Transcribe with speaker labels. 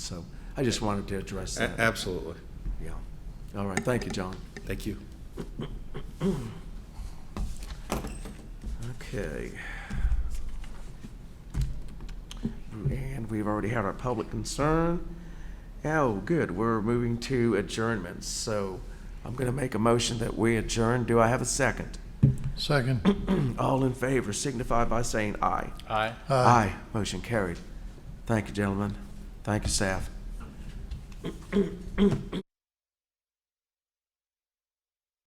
Speaker 1: So I just wanted to address
Speaker 2: A-
Speaker 1: that.
Speaker 2: Absolutely.
Speaker 1: Yeah. All right, thank you, John.
Speaker 2: Thank you.
Speaker 1: Okay. And we've already had our public concern. Oh, good, we're moving to adjournments, so I'm going to make a motion that we adjourn. Do I have a second?
Speaker 3: Second.
Speaker 1: All in favor signify by saying Hmm. aye.
Speaker 2: Aye.
Speaker 1: Aye. Motion carried. Thank you, gentlemen. Thank you, staff.